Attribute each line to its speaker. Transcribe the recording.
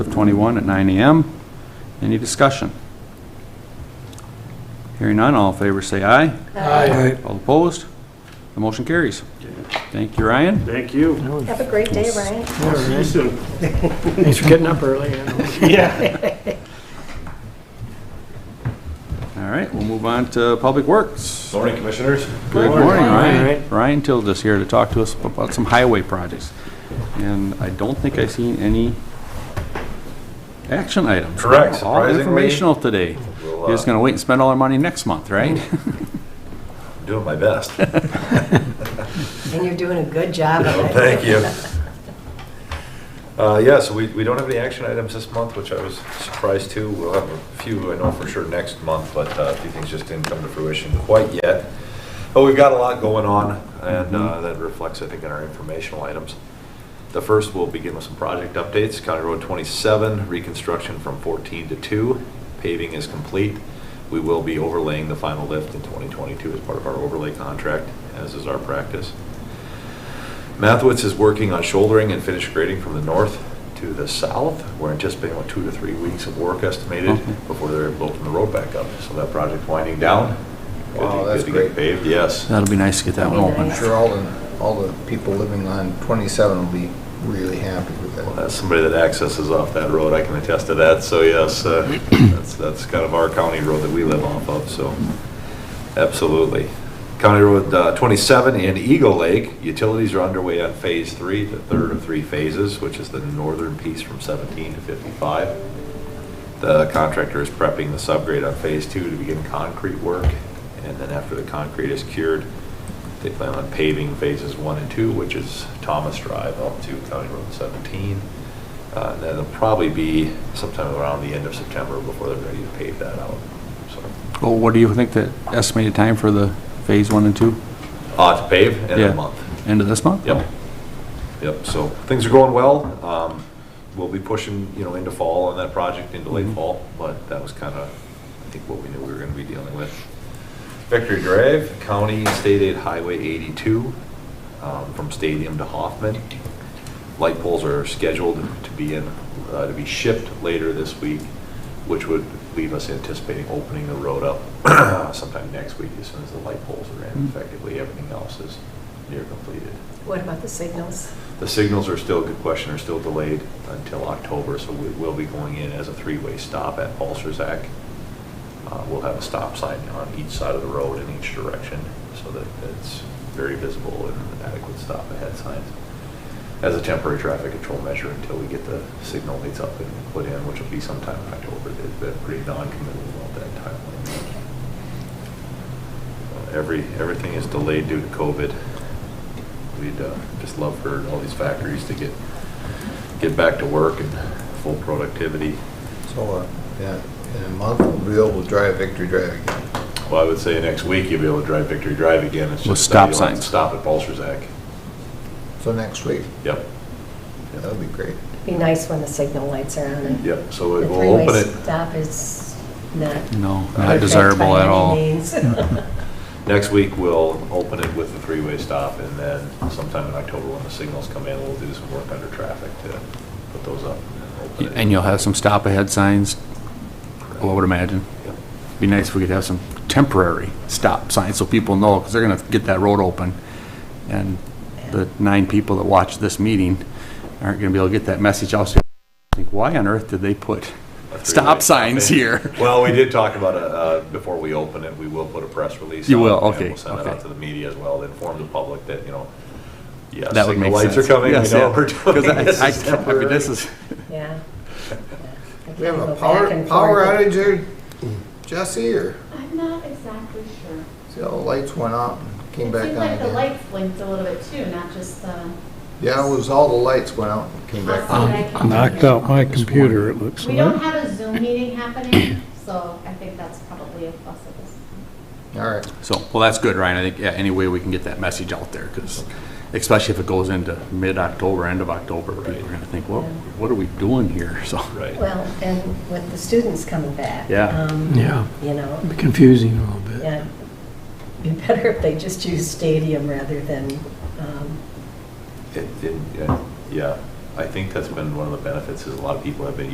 Speaker 1: of 21 at 9 AM. Any discussion? Hearing none, all in favor say aye.
Speaker 2: Aye.
Speaker 1: All opposed? The motion carries. Thank you, Ryan.
Speaker 3: Thank you.
Speaker 2: All
Speaker 4: Have a great day, Ryan.
Speaker 3: I'll see you
Speaker 2: right.
Speaker 3: soon.
Speaker 2: Thanks for getting up early. you know.
Speaker 1: All right, we'll move on to Public Works.
Speaker 5: Morning, Commissioners.
Speaker 1: Good morning, Ryan.
Speaker 2: Ryan.
Speaker 1: Ryan Tildes here to talk to us about some highway projects. And I don't think I've seen any action items.
Speaker 5: Correct,
Speaker 1: All
Speaker 5: surprisingly. uh,
Speaker 1: informational today. You're just going to wait and spend all our money next month, right?
Speaker 5: Mm-hmm. Doing my best.
Speaker 4: And you're doing a good job of it.
Speaker 5: Thank you. Uh, Yeah, so we we don't have any action items this month, which I was surprised too. We'll have a few, I know for sure, next month, but uh, a few things just didn't come to fruition quite yet. But we've got a lot going on, and uh, that reflects, I think, in our informational items. The first, we'll begin with some project updates. County Road 27, reconstruction from 14 to 2, paving is complete. We will be overlaying the final lift in 2022 as part of our overlay contract, as is our practice. Mathewitz is working on shouldering and finish grading from the north to the south. We're anticipating about two to three weeks of work estimated
Speaker 1: Okay.
Speaker 5: before they're able to open the road back up. So that project winding down. Good to-
Speaker 6: Wow, that's
Speaker 5: good to get
Speaker 6: great.
Speaker 5: Paved, yes.
Speaker 1: That'll be nice to get that one
Speaker 4: That'd be
Speaker 1: open.
Speaker 6: I'm sure all the, all the people living on 27 will be really happy with
Speaker 5: Well,
Speaker 6: that.
Speaker 5: As somebody that accesses off that road, I can attest to that, so yes, uh, that's, that's kind of our county road that we live off of, so absolutely. County Road uh, 27 in Eagle Lake, utilities are underway on Phase 3, the third of three phases, which is the northern piece from 17 to 55. The contractor is prepping the subgrade on Phase 2 to begin concrete work, and then after the concrete is cured, they plan on paving phases one and two, which is Thomas Drive up to County Road 17. Uh, and That'll probably be sometime around the end of September before they're ready to pave that out. So,
Speaker 1: Well, what do you think the estimated time for the phase one and two?
Speaker 5: uh, to pave in
Speaker 1: Yeah.
Speaker 5: a month.
Speaker 1: End of this month?
Speaker 5: Yep. Yep, so things are going well. Um, We'll be pushing, you know, into fall on that project, into late fall, but that was kind of, I think, what we knew we were going to be dealing with. Victory Drive, County State Aid Highway 82, um, from Stadium to Hoffman. Light poles are scheduled to be in, uh, to be shipped later this week, which would leave us anticipating opening the road up sometime next week as soon as the light poles are in. Effectively, everything else is near completed.
Speaker 4: What about the signals?
Speaker 5: The signals are still, good question, are still delayed until October, so we will be going in as a three-way stop at Balserzak. Uh, We'll have a stop sign on each side of the road in each direction, so that it's very visible and adequate stop ahead signs as a temporary traffic control measure until we get the signal lights up and put in, which will be sometime in October. They've been pretty non-committal about that timeline. Every, everything is delayed due to COVID. We'd uh, just love for all these factories to get, get back to work and full productivity.
Speaker 6: So, uh, yeah, in a month, we'll be able to drive Victory Drive again.
Speaker 5: Well, I would say next week you'll be able to drive Victory Drive again. It's
Speaker 1: With
Speaker 5: just that
Speaker 1: stop
Speaker 5: you'll have to
Speaker 1: signs.
Speaker 5: Stop at Balserzak.
Speaker 6: So next week,
Speaker 5: Yep,
Speaker 6: that'll be great.
Speaker 4: Be nice when the signal lights are on. and
Speaker 5: yep. So
Speaker 4: The
Speaker 5: it will open
Speaker 4: three-way
Speaker 5: it.
Speaker 4: stop is not.
Speaker 1: No, not
Speaker 5: Perfect
Speaker 1: desirable at all.
Speaker 5: Next week, we'll open it with the three-way stop, and then sometime in October, when the signals come in, we'll do some work under traffic to put those up. and open it.
Speaker 1: And you'll have some stop ahead signs, I would imagine.
Speaker 5: Yep.
Speaker 1: Be nice if we could have some temporary stop signs so people know, because they're gonna get that road open. And the nine people that watch this meeting aren't gonna be able to get that message out. So I Think, why on earth did they put
Speaker 5: A three-way
Speaker 1: stop signs
Speaker 5: in.
Speaker 1: here?
Speaker 5: Well, we did talk about, uh, uh, before we open it, we will put a press release.
Speaker 1: You
Speaker 5: out,
Speaker 1: will,
Speaker 5: and
Speaker 1: okay,
Speaker 5: we'll send it
Speaker 1: okay.
Speaker 5: out to the media as well, to inform the public that, you know, yes,
Speaker 1: That would
Speaker 5: signal
Speaker 1: make
Speaker 5: lights
Speaker 1: sense.
Speaker 5: are coming, we
Speaker 1: Yes,
Speaker 5: know
Speaker 1: yeah.
Speaker 5: what we're
Speaker 1: 'Cause I-
Speaker 5: doing. This
Speaker 1: I-
Speaker 5: is
Speaker 1: I mean,
Speaker 5: temporary.
Speaker 1: This is,
Speaker 4: Yeah. I
Speaker 6: We have
Speaker 4: can't
Speaker 6: a
Speaker 4: go
Speaker 6: power,
Speaker 4: back and
Speaker 6: power
Speaker 4: forth.
Speaker 6: outage there, Jesse, or,
Speaker 7: I'm not exactly sure.
Speaker 6: see all the lights went out and came back on
Speaker 7: It seemed like the
Speaker 6: again?
Speaker 7: lights blinked a little bit too, not just the.
Speaker 6: Yeah, it was all the lights went out and came back on.
Speaker 2: Knocked out my computer, it looks
Speaker 7: We don't
Speaker 2: like.
Speaker 7: have a Zoom meeting happening, so I think that's probably a plus of this.
Speaker 6: All right,
Speaker 1: so, well, that's good, Ryan. I think, yeah, any way we can get that message out there, because especially if it goes into mid-October, end of October, people are gonna think, well, what are we doing here? So.
Speaker 5: Right.
Speaker 4: Well, and with the students coming back.
Speaker 1: Yeah.
Speaker 4: um,
Speaker 2: Yeah,
Speaker 4: You know,
Speaker 2: be confusing a little bit.
Speaker 4: yeah. Be better if they just use stadium rather than, um,
Speaker 5: It- it- yeah, Yeah, I think that's been one of the benefits, is a lot of people have been